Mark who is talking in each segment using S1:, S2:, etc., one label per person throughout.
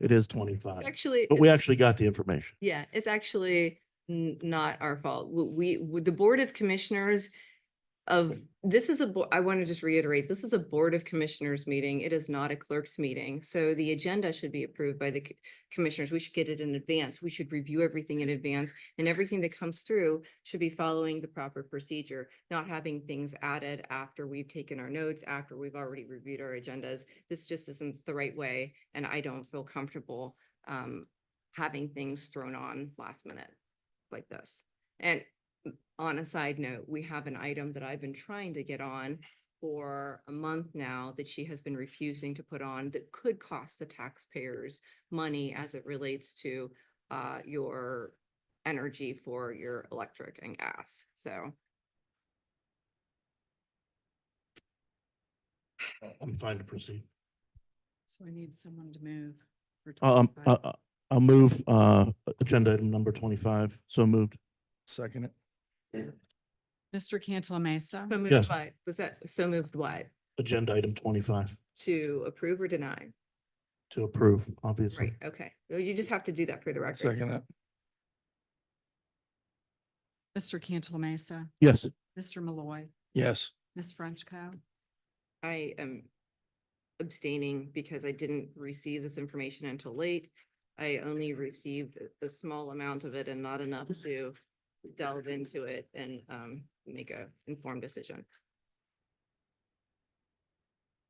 S1: It is twenty-five,
S2: It's actually,
S1: but we actually got the information.
S2: yeah, it's actually n- not our fault. W- We, w- the Board of Commissioners of, this is a, bo- I want to just reiterate, this is a Board of Commissioners meeting. It is not a clerk's meeting. So the agenda should be approved by the c- commissioners. We should get it in advance. We should review everything in advance. And everything that comes through should be following the proper procedure, not having things added after we've taken our notes, after we've already reviewed our agendas. This just isn't the right way, and I don't feel comfortable um, having things thrown on last minute like this. And on a side note, we have an item that I've been trying to get on for a month now that she has been refusing to put on that could cost the taxpayers money as it relates to uh, your energy for your electric and gas. So
S1: I'm fine to proceed.
S3: So I need someone to move. for
S1: Um,
S3: 25.
S1: uh, uh, I'll move, uh, agenda item number twenty-five. So moved.
S4: Second it.
S3: Mr. Cantala Mesa,
S2: so
S1: Yes.
S2: moved what? Was that, so moved what?
S1: Agenda item twenty-five
S2: To approve or deny?
S1: to approve,
S2: Right,
S1: obviously.
S2: okay. Well, You just have to do that for the record.
S4: Second it.
S3: Mr. Cantala Mesa,
S1: Yes,
S3: Mr. Malloy,
S4: Yes.
S3: Ms. Frenchco.
S2: I am abstaining because I didn't receive this information until late. I only received a- a small amount of it and not enough to delve into it and um make a informed decision.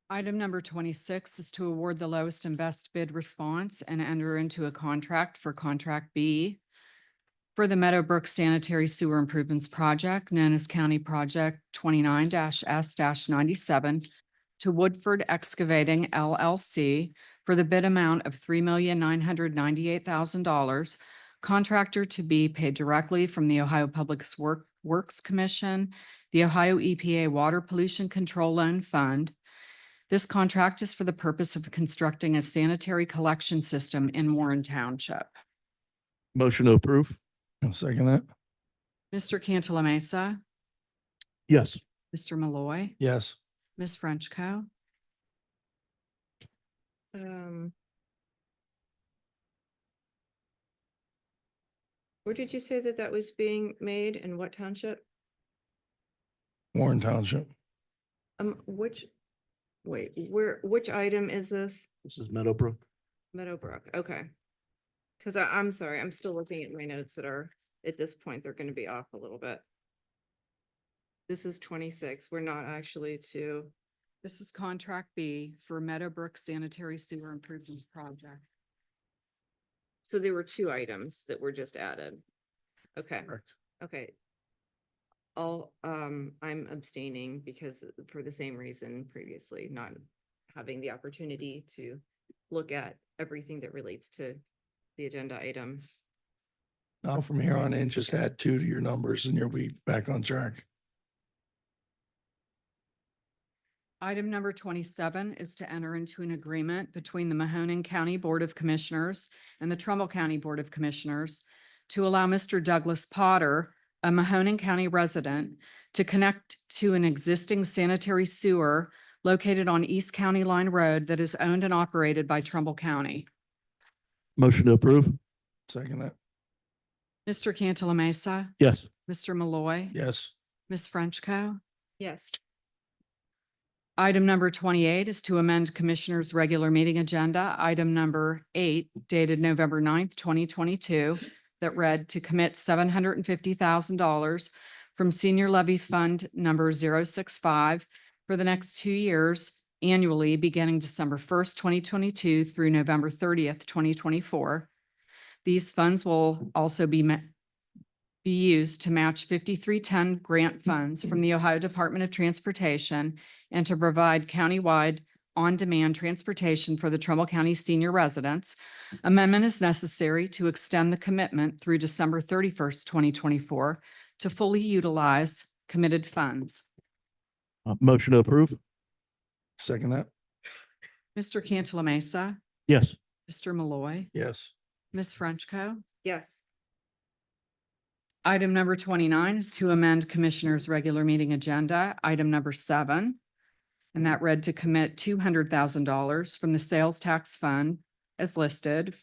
S3: Item number twenty-six is to award the lowest and best bid response and enter into a contract for contract B for the Meadowbrook Sanitary Sewer Improvements Project, known as County Project twenty-nine S ninety-seven to Woodford Excavating LLC for the bid amount of three million nine hundred ninety-eight thousand dollars. Contractor to be paid directly from the Ohio Public Work- Works Commission, the Ohio EPA Water Pollution Control Loan Fund, this contract is for the purpose of constructing a sanitary collection system in Warren Township.
S1: motion to approve.
S4: And second it.
S3: Mr. Cantala Mesa,
S1: Yes,
S3: Mr. Malloy,
S4: Yes.
S3: Ms. Frenchco.
S2: Um. Where did you say that that was being made and what township?
S4: Warren Township.
S2: Um, which, wait, where, which item is this?
S1: this is Meadowbrook.
S2: Meadowbrook, okay. Cause I, I'm sorry, I'm still looking at my notes that are, at this point, they're gonna be off a little bit. This is twenty-six, we're not actually to,
S3: This is contract B for Meadowbrook Sanitary Sewer Improvements Project.
S2: so there were two items that were just added. Okay,
S4: Correct.
S2: okay. All, um, I'm abstaining because for the same reason previously, not having the opportunity to look at everything that relates to the agenda item.
S4: Now from here on in, just add two to your numbers and you'll be back on track.
S3: Item number twenty-seven is to enter into an agreement between the Mahoning County Board of Commissioners and the Trumbull County Board of Commissioners to allow Mr. Douglas Potter, a Mahoning County resident, to connect to an existing sanitary sewer located on East County Line Road that is owned and operated by Trumbull County.
S1: Motion to approve.
S4: Second it.
S3: Mr. Cantala Mesa,
S1: Yes,
S3: Mr. Malloy,
S4: Yes.
S3: Ms. Frenchco.
S2: Yes.
S3: Item number twenty-eight is to amend Commissioner's regular meeting agenda, item number eight dated November 9th, twenty twenty-two, that read to commit seven hundred and fifty thousand dollars from Senior Levy Fund number 065 for the next two years annually, beginning December first, twenty twenty-two through November thirtieth, twenty twenty-four. These funds will also be ma- be used to match fifty-three ten grant funds from the Ohio Department of Transportation and to provide countywide on-demand transportation for the Trumbull County senior residents. Amendment is necessary to extend the commitment through December thirty-first, twenty twenty-four to fully utilize committed funds.
S1: uh, motion to approve.
S4: Second it.
S3: Mr. Cantala Mesa,
S1: Yes,
S3: Mr. Malloy,
S4: Yes.
S3: Ms. Frenchco.
S2: Yes.
S3: Item number twenty-nine is to amend Commissioner's regular meeting agenda, item number seven. And that read to commit two hundred thousand dollars from the sales tax fund as listed